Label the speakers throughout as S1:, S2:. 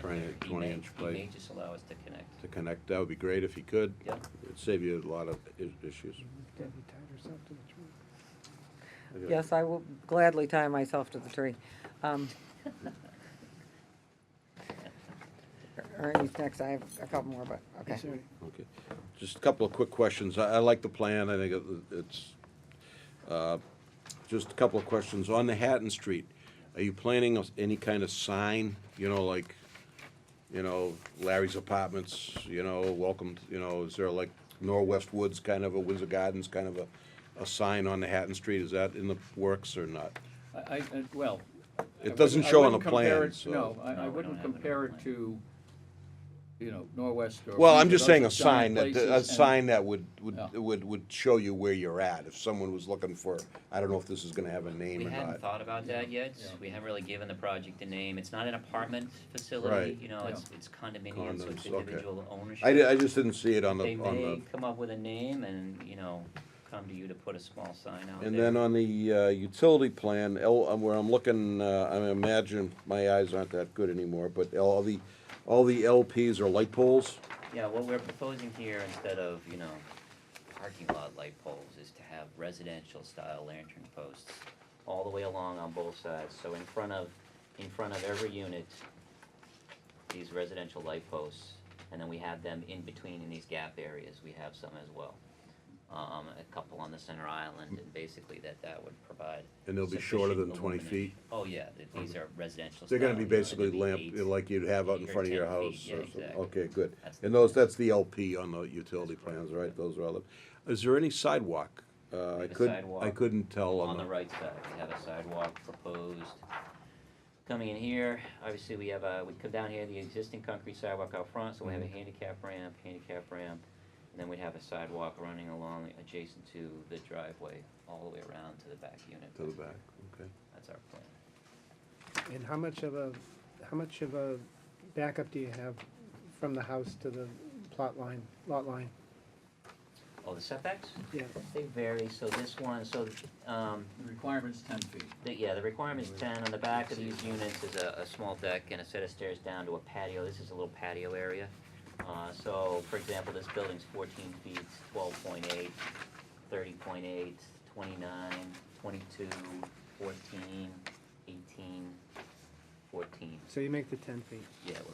S1: Twenty-
S2: he
S1: 20
S2: may-
S1: inch
S2: He may
S1: plate.
S2: just allow us to connect.
S1: to connect, that would be great if you could.
S2: Yeah.
S1: It'd save you a lot of i- issues.
S3: Debbie tied herself to the tree.
S4: Yes, I will gladly tie myself to the tree. Um, Ernie's next, I have a couple more, but, okay.
S3: Sorry.
S1: Okay, just a couple of quick questions. I, I like the plan, I think it- it's, uh, just a couple of questions. On the Hatton Street, are you planning of any kind of sign, you know, like, you know, Larry's Apartments, you know, welcome, to- you know, is there like Norwest Woods kind of a, Windsor Gardens kind of a, a sign on the Hatton Street? Is that in the works or not?
S5: I, I, I- well. I wouldn't-
S1: doesn't
S5: I
S1: show on
S5: wouldn't
S1: the
S5: compare
S1: plan,
S5: it-
S1: so-
S5: No, I,
S2: No,
S5: I
S2: we
S5: wouldn't
S2: don't have it on
S5: compare
S2: the
S5: it
S2: plan.
S5: to, you know, Norwest or.
S1: Well, I'm
S5: Windsor,
S1: just saying a
S5: those are
S1: sign that,
S5: giant
S1: a
S5: places and-
S1: sign that would,
S5: Yeah.
S1: would, would, would show you where you're at, if someone was looking for, I don't know if this is gonna have a
S2: We
S1: name or
S2: hadn't
S1: not.
S2: thought about that yet,
S5: Yeah.
S2: we haven't really given the project a name, it's not an apartment facility,
S1: Right.
S2: you know, it's, it's condominium, so it's
S1: Condoms, okay.
S2: individual ownership.
S1: I, di- I just didn't see it on
S2: They
S1: the, on
S2: may
S1: the,
S2: come up with a name and, you know, come to you to put a small sign out there.
S1: and then on the, uh, utility plan, L, um, where I'm looking, uh, I imagine, my eyes aren't that good anymore, but all the, all the LPs are light poles?
S2: Yeah, what we're proposing here, instead of, you know, parking lot light poles, is to have residential style lantern posts all the way along on both sides, so in front of, in front of every unit, these residential light posts, and then we have them in between in these gap areas, we have some as well. Um, a couple on the center island, and basically that, that would provide.
S1: And they'll be shorter than
S2: sufficient
S1: 20
S2: illumination.
S1: feet? Mm-hmm.
S2: Oh, yeah, th- these are residential
S1: They're gonna
S2: style,
S1: be
S2: you know,
S1: basically
S2: they'll be
S1: lamp,
S2: eight.
S1: like you'd have out in
S2: Eight or
S1: front of your
S2: 10 feet,
S1: house
S2: yeah,
S1: or something,
S2: exactly.
S1: okay, good.
S2: That's the
S1: And those,
S2: plan.
S1: that's the LP on the utility plans, right, those are all, the- is there any sidewalk? Uh,
S2: have
S1: I
S2: a
S1: couldn't, I
S2: sidewalk
S1: couldn't tell
S2: On
S1: on
S2: the
S1: the,
S2: right side, we have a sidewalk proposed coming in here. Obviously, we have a, we come down here, the existing concrete sidewalk out front, so we have a handicap ramp, handicap ramp. And then we have a sidewalk running along adjacent to the driveway, all the way around to the back unit.
S1: to the back, okay.
S2: That's our plan.
S3: And how much of a, how much of a backup do you have from the house to the plot line, lot line?
S2: Oh, the setbacks?
S3: Yeah.
S2: They vary, so this one, so, um,
S5: The Requirement's ten feet.
S2: The- Yeah, the requirement's ten, on the back of these units is a, a small deck and a set of stairs down to a patio, this is a little patio area. Uh, so, for example, this building's fourteen feet, 12.8, 30.8, 29, 22, 14. eighteen, fourteen,
S3: So you make the ten feet.
S2: yeah. we're-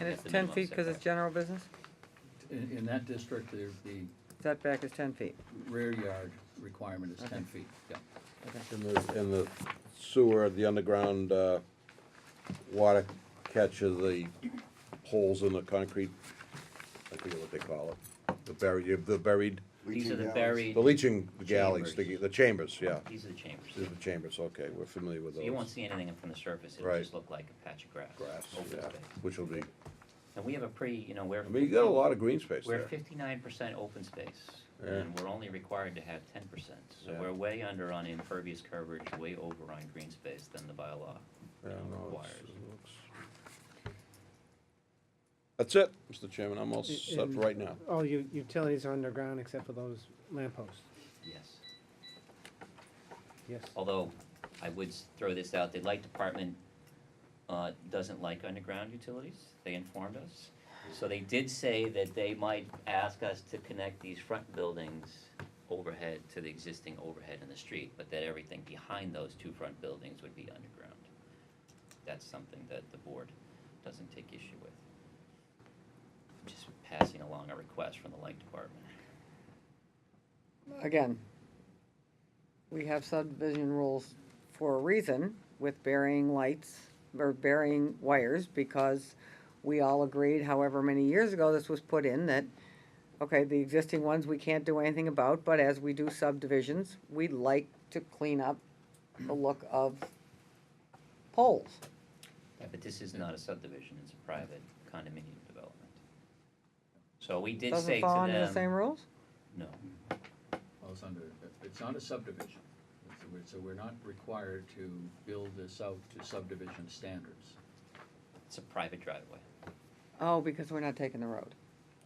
S4: And
S2: that's
S4: it's
S2: the
S4: ten
S2: minimum
S4: feet because it's
S2: setback.
S4: general business?
S5: In, in that district, the, the
S4: Setback is ten feet.
S5: rear yard requirement is ten feet, yeah.
S1: And the, and the sewer, the underground, uh, water catch of the holes in the concrete, I forget what they call it, the buried, the buried,
S2: These are the
S6: Leaching
S2: buried,
S1: the leaching galleys, the,
S2: Chambers.
S1: the chambers, yeah.
S2: these are the chambers.
S1: These are the chambers, okay, we're familiar with
S2: So
S1: those.
S2: you won't see anything from the surface, it'll
S1: Right.
S2: just look like a patch of grass,
S1: Grass,
S2: open
S1: yeah,
S2: space.
S1: which will be,
S2: And we have a pretty, you know, we're.
S1: I mean, you got a lot of green space
S2: We're
S1: there.
S2: fifty-nine percent open space,
S1: Yeah.
S2: and we're only required to have ten percent, so
S1: Yeah.
S2: we're way under on impervious coverage, way over on green space than the bylaw.
S1: Yeah,
S2: you know,
S1: no, it's-
S2: requires.
S1: it looks- That's it, Mr. Chairman, I'm all
S3: I-
S1: set
S3: and
S1: for right now.
S3: All u- utilities are underground except for those lampposts.
S2: Yes,
S3: Yes.
S2: although, I would s- throw this out, the light department, uh, doesn't like underground utilities, they informed us. So they did say that they might ask us to connect these front buildings overhead to the existing overhead in the street, but that everything behind those two front buildings would be underground. That's something that the board doesn't take issue with. Just passing along a request from the light department.
S4: Again, we have subdivision rules for a reason with burying lights or burying wires because we all agreed however many years ago this was put in that, okay, the existing ones we can't do anything about, but as we do subdivisions, we like to clean up the look of poles.
S2: But this is not a subdivision, it's a private condominium development. So we did say
S4: Doesn't
S2: to them.
S4: fall under the same rules?
S2: No,
S5: Well, it's under, it's not a subdivision, so we're, so we're not required to build this out to subdivision standards.
S2: it's a private driveway.
S4: Oh, because we're not taking the road.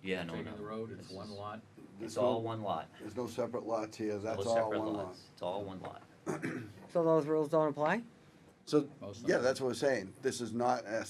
S2: Yeah, no, no.
S5: Taking the road, it's
S2: This
S5: one
S2: is-
S5: lot,
S6: There's
S2: It's all
S6: no,
S2: one lot.
S6: there's no separate lots here, that's
S2: No
S6: all
S2: separate
S6: one lot.
S2: lots. It's all one lot.
S4: So those rules don't apply?
S6: So,
S5: Most of
S6: yeah,
S5: them.
S6: that's what we're saying, this is not a